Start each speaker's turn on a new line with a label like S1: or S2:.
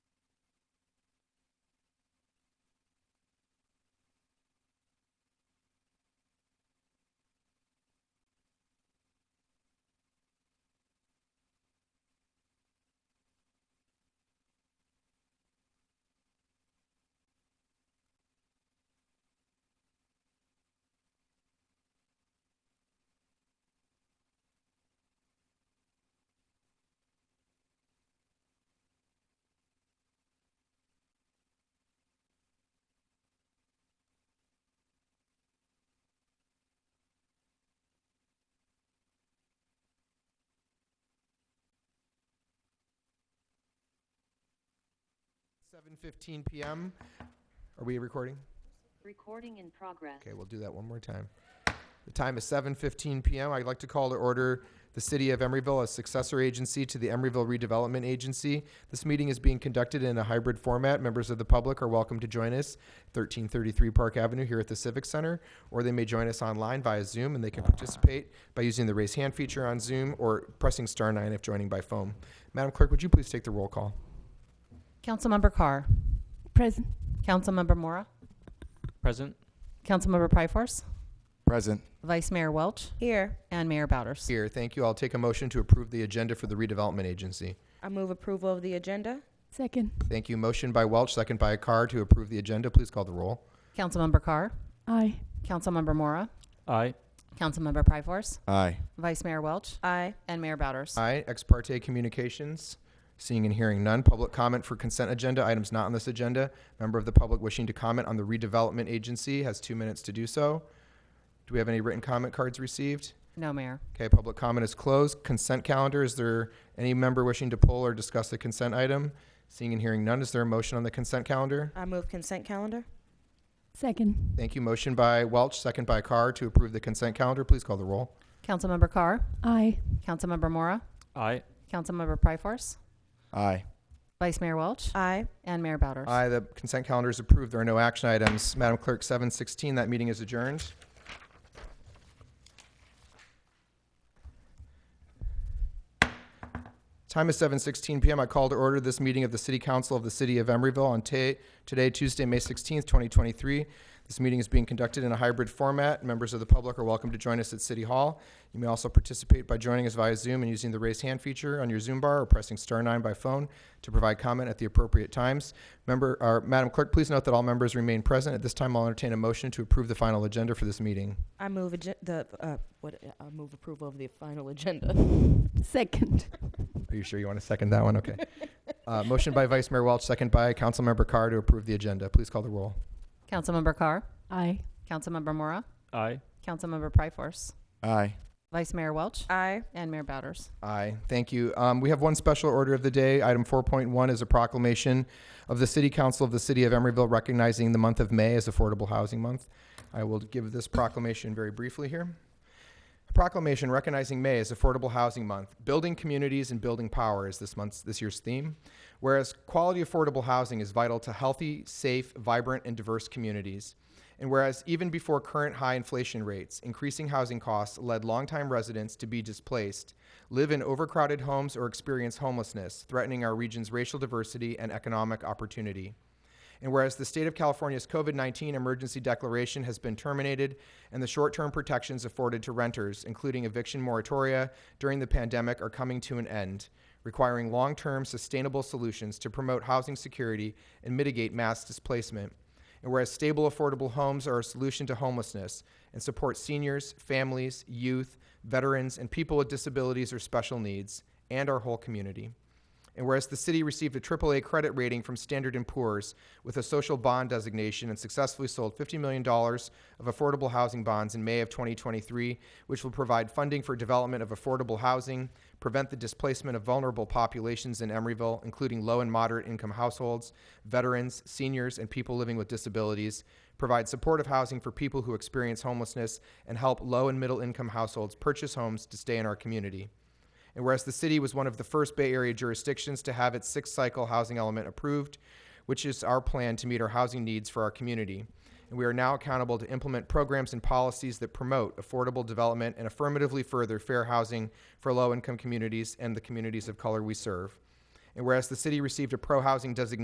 S1: 7:15 PM. Are we recording?
S2: Recording in progress.
S1: Okay, we'll do that one more time. The time is 7:15 PM. I'd like to call to order the City of Emeryville, a successor agency to the Emeryville Redevelopment Agency. This meeting is being conducted in a hybrid format. Members of the public are welcome to join us, 1333 Park Avenue here at the Civic Center, or they may join us online via Zoom, and they can participate by using the raise hand feature on Zoom or pressing star nine if joining by phone. Madam Clerk, would you please take the roll call?
S3: Councilmember Carr.
S4: Present.
S3: Councilmember Mora.
S5: Present.
S3: Councilmember Pryforce.
S6: Present.
S3: Vice Mayor Welch.
S4: Here.
S3: And Mayor Bowders.
S1: Here, thank you. I'll take a motion to approve the agenda for the redevelopment agency.
S7: I move approval of the agenda.
S4: Second.
S1: Thank you. Motion by Welch, second by Carr to approve the agenda. Please call the roll.
S3: Councilmember Carr.
S4: Aye.
S3: Councilmember Mora.
S5: Aye.
S3: Councilmember Pryforce.
S6: Aye.
S3: Vice Mayor Welch.
S7: Aye.
S3: And Mayor Bowders.
S1: Aye. Ex parte communications. Seeing and hearing none. Public comment for consent agenda items not on this agenda. Member of the public wishing to comment on the redevelopment agency has two minutes to do so. Do we have any written comment cards received?
S3: No, Mayor.
S1: Okay, public comment is closed. Consent calendar, is there any member wishing to pull or discuss the consent item? Seeing and hearing none, is there a motion on the consent calendar?
S7: I move consent calendar.
S4: Second.
S1: Thank you. Motion by Welch, second by Carr to approve the consent calendar. Please call the roll.
S3: Councilmember Carr.
S4: Aye.
S3: Councilmember Mora.
S5: Aye.
S3: Councilmember Pryforce.
S6: Aye.
S3: Vice Mayor Welch.
S7: Aye.
S3: And Mayor Bowders.
S1: Aye, the consent calendar is approved. There are no action items. Madam Clerk, 7:16, that meeting is adjourned. Time is 7:16 PM. I call to order this meeting of the City Council of the City of Emeryville on ta- today, Tuesday, May 16th, 2023. This meeting is being conducted in a hybrid format. Members of the public are welcome to join us at City Hall. You may also participate by joining us via Zoom and using the raise hand feature on your Zoom bar or pressing star nine by phone to provide comment at the appropriate times. Member, or Madam Clerk, please note that all members remain present. At this time, I'll entertain a motion to approve the final agenda for this meeting.
S7: I move agen- the uh, what? I move approval of the final agenda.
S4: Second.
S1: Are you sure you want to second that one? Okay. Uh, motion by Vice Mayor Welch, second by Councilmember Carr to approve the agenda. Please call the roll.
S3: Councilmember Carr.
S4: Aye.
S3: Councilmember Mora.
S5: Aye.
S3: Councilmember Pryforce.
S6: Aye.
S3: Vice Mayor Welch.
S7: Aye.
S3: And Mayor Bowders.
S1: Aye, thank you. Um, we have one special order of the day. Item four point one is a proclamation of the City Council of the City of Emeryville recognizing the month of May as Affordable Housing Month. I will give this proclamation very briefly here. A proclamation recognizing May as Affordable Housing Month. Building communities and building power is this month's this year's theme. Whereas quality affordable housing is vital to healthy, safe, vibrant, and diverse communities. And whereas even before current high inflation rates, increasing housing costs led longtime residents to be displaced, live in overcrowded homes, or experience homelessness, threatening our region's racial diversity and economic opportunity. And whereas the state of California's COVID 19 emergency declaration has been terminated and the short term protections afforded to renters, including eviction moratoria during the pandemic, are coming to an end, requiring long term sustainable solutions to promote housing security and mitigate mass displacement. And whereas stable, affordable homes are a solution to homelessness and support seniors, families, youth, veterans, and people with disabilities or special needs, and our whole community. And whereas the city received a AAA credit rating from Standard & Poor's with a social bond designation and successfully sold $50 million of affordable housing bonds in May of 2023, which will provide funding for development of affordable housing, prevent the displacement of vulnerable populations in Emeryville, including low and moderate income households, veterans, seniors, and people living with disabilities, provide supportive housing for people who experience homelessness, and help low and middle income households purchase homes to stay in our community. And whereas the city was one of the first Bay Area jurisdictions to have its sixth cycle housing element approved, which is our plan to meet our housing needs for our community. And we are now accountable to implement programs and policies that promote affordable development and affirmatively further fair housing for low income communities and the communities of color we serve. And whereas the city received a pro housing designation.